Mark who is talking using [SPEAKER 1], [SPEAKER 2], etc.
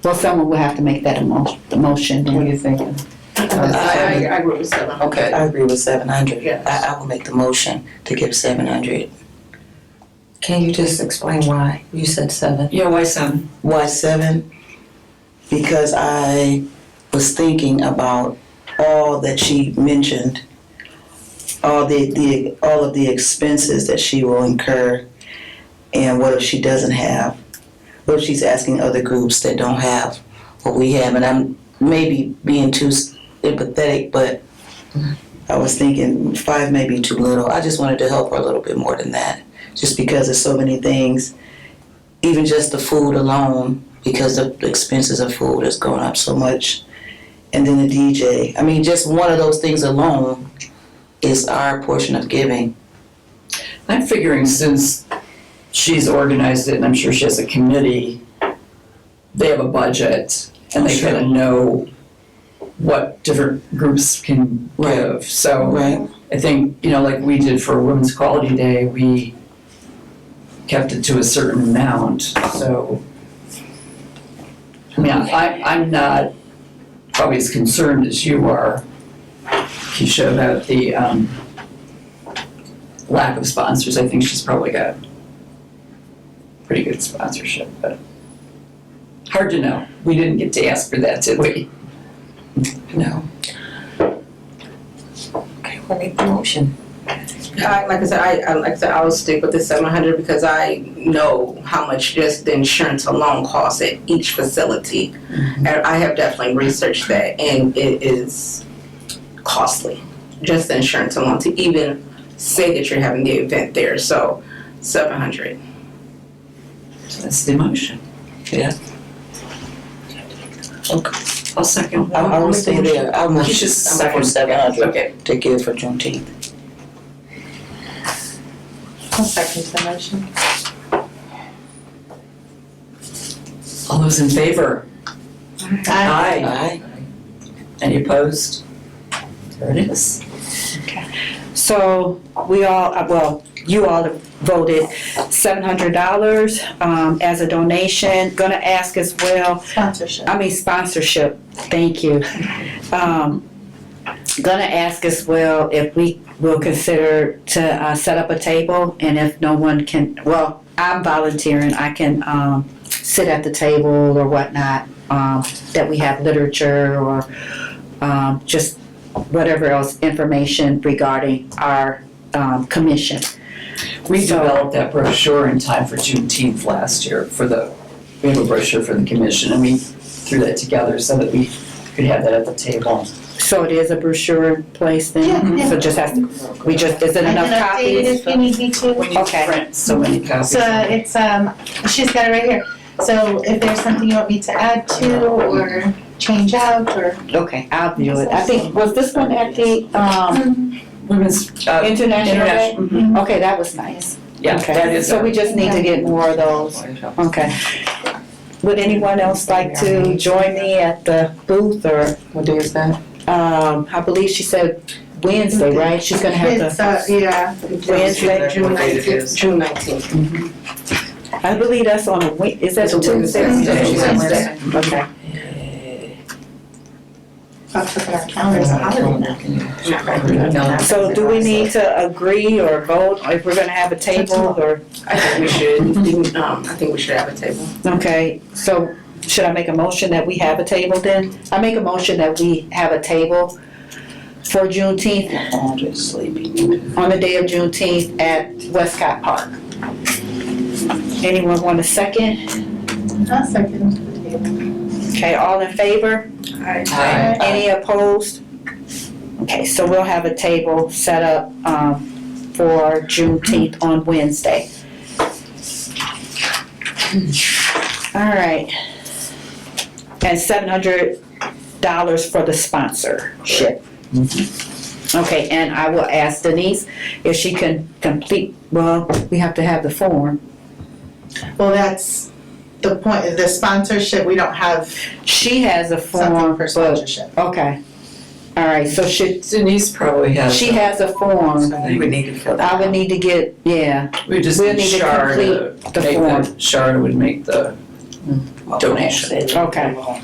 [SPEAKER 1] Well, someone will have to make that emo- the motion.
[SPEAKER 2] What
[SPEAKER 1] then.
[SPEAKER 2] are you thinking?
[SPEAKER 3] I, I, I wrote seven hundred.
[SPEAKER 2] Okay, I agree with seven hundred.
[SPEAKER 3] Yes.
[SPEAKER 2] I, I will make the motion to give seven hundred. Can you just explain why? You said seven.
[SPEAKER 4] Yeah, why seven?
[SPEAKER 2] Why seven? Because I was thinking about all that she mentioned, all the, the all of the expenses that she will incur, and what if she doesn't have? What if she's asking other groups that don't have what we have? And I'm maybe being too empathetic, but I was thinking five may be too little. I just wanted to help her a little bit more than that, just because there's so many things even just the food alone, because the expenses of food has gone up so much. And then the DJ. I mean, just one of those things alone is our portion of giving.
[SPEAKER 4] I'm figuring since she's organized it, and I'm sure she has a committee, they have a budget, and they
[SPEAKER 2] Sure.
[SPEAKER 4] kind of know what different groups can
[SPEAKER 2] Right.
[SPEAKER 4] give. So
[SPEAKER 2] Right.
[SPEAKER 4] I think, you know, like we did for Women's Quality Day, we kept it to a certain amount, so. I mean, I, I'm not probably as concerned as you are, Keisha, about the, um, lack of sponsors. I think she's probably got pretty good sponsorship, but hard to know. We didn't get to ask for that, did we?
[SPEAKER 2] No. Okay, we'll make the motion.
[SPEAKER 3] I, like I said, I, I like I said, I will stick with the seven hundred because I know how much just the insurance alone costs at each facility.
[SPEAKER 4] Mm-hmm.
[SPEAKER 3] And I have definitely researched that and it is costly, just the insurance alone to even say that you're having the event there, so seven hundred.
[SPEAKER 4] So that's the motion.
[SPEAKER 2] Yeah.
[SPEAKER 4] Okay. I'll second.
[SPEAKER 2] I, I will stay there. I will.
[SPEAKER 4] He's just
[SPEAKER 2] I'm for
[SPEAKER 4] second.
[SPEAKER 2] seven hundred
[SPEAKER 4] Okay.
[SPEAKER 2] to give for Juneteenth.
[SPEAKER 5] I'll second the motion.
[SPEAKER 4] All those in favor?
[SPEAKER 1] I-
[SPEAKER 4] Aye.
[SPEAKER 2] Aye.
[SPEAKER 4] Any opposed? There it is.
[SPEAKER 5] So we all, uh, well, you all have voted seven hundred dollars, um, as a donation. Gonna ask as well,
[SPEAKER 1] Sponsorship.
[SPEAKER 5] I mean sponsorship, thank you. Um, gonna ask as well if we will consider to, uh, set up a table and if no one can, well, I'm volunteering, I can, um, sit at the table or whatnot, um, that we have literature or, um, just whatever else, information regarding our, um, commission.
[SPEAKER 4] We developed that brochure in time for Juneteenth last year for the, we have a brochure for the commission and we threw that together so that we could have that at the table.
[SPEAKER 5] So it is a brochure in place then?
[SPEAKER 1] Yeah, yeah.
[SPEAKER 5] So just has to, we just, is it enough
[SPEAKER 1] I can update it
[SPEAKER 5] copies?
[SPEAKER 1] if you need me to.
[SPEAKER 4] When you
[SPEAKER 5] Okay.
[SPEAKER 4] print so many copies.
[SPEAKER 1] So it's, um, she's got it right here. So if there's something you want me to add to or change out or.
[SPEAKER 5] Okay, I'll do it. I think, was this one at the, um,
[SPEAKER 4] Women's,
[SPEAKER 1] Mm-hmm.
[SPEAKER 4] uh,
[SPEAKER 5] International Day?
[SPEAKER 4] international, mhm.
[SPEAKER 5] Okay, that was nice.
[SPEAKER 4] yeah,
[SPEAKER 5] Okay.
[SPEAKER 4] that is.
[SPEAKER 5] So we just need to get more of those. Okay. Would anyone else like to join me at the booth or,
[SPEAKER 2] What day is that?
[SPEAKER 5] um, I believe she said Wednesday, right? She's gonna have
[SPEAKER 1] It's,
[SPEAKER 5] to,
[SPEAKER 1] uh, yeah.
[SPEAKER 5] Wednesday,
[SPEAKER 3] June
[SPEAKER 4] What date it
[SPEAKER 3] nineteenth,
[SPEAKER 4] is.
[SPEAKER 3] June nineteenth.
[SPEAKER 5] I believe that's on a Wed, is that
[SPEAKER 4] It's a
[SPEAKER 5] Tuesday?
[SPEAKER 4] Wednesday.
[SPEAKER 3] It's a Wednesday.
[SPEAKER 5] Okay.
[SPEAKER 1] I'll put it on calendar as a holiday now.
[SPEAKER 5] So do we need to agree or vote if we're gonna have a table or,
[SPEAKER 3] I think we should, um, I think we should have a table.
[SPEAKER 5] okay, so should I make a motion that we have a table then? I make a motion that we have a table for Juneteenth,
[SPEAKER 2] Andrew's sleeping.
[SPEAKER 5] on the day of Juneteenth at Westcott Park. Anyone want a second?
[SPEAKER 1] I'll second.
[SPEAKER 5] Okay, all in favor?
[SPEAKER 4] Aye.
[SPEAKER 5] Any opposed? Okay, so we'll have a table set up, um, for Juneteenth on Wednesday. All right. And seven hundred dollars for the sponsorship.
[SPEAKER 1] Mm-hmm.
[SPEAKER 5] Okay, and I will ask Denise if she can complete, well, we have to have the form.
[SPEAKER 1] Well, that's the point, the sponsorship, we don't have
[SPEAKER 5] She has a
[SPEAKER 1] something
[SPEAKER 5] form,
[SPEAKER 1] for
[SPEAKER 5] but,
[SPEAKER 1] sponsorship.
[SPEAKER 5] okay. All right, so should,
[SPEAKER 4] Denise probably has.
[SPEAKER 5] she has a form.
[SPEAKER 4] We would need to fill
[SPEAKER 5] I would need to get, yeah,
[SPEAKER 4] We just
[SPEAKER 5] We'll
[SPEAKER 4] need
[SPEAKER 5] need to
[SPEAKER 4] Shar to
[SPEAKER 5] complete the
[SPEAKER 4] make
[SPEAKER 5] form.
[SPEAKER 4] the, Shar would make the
[SPEAKER 6] donation.
[SPEAKER 2] Okay.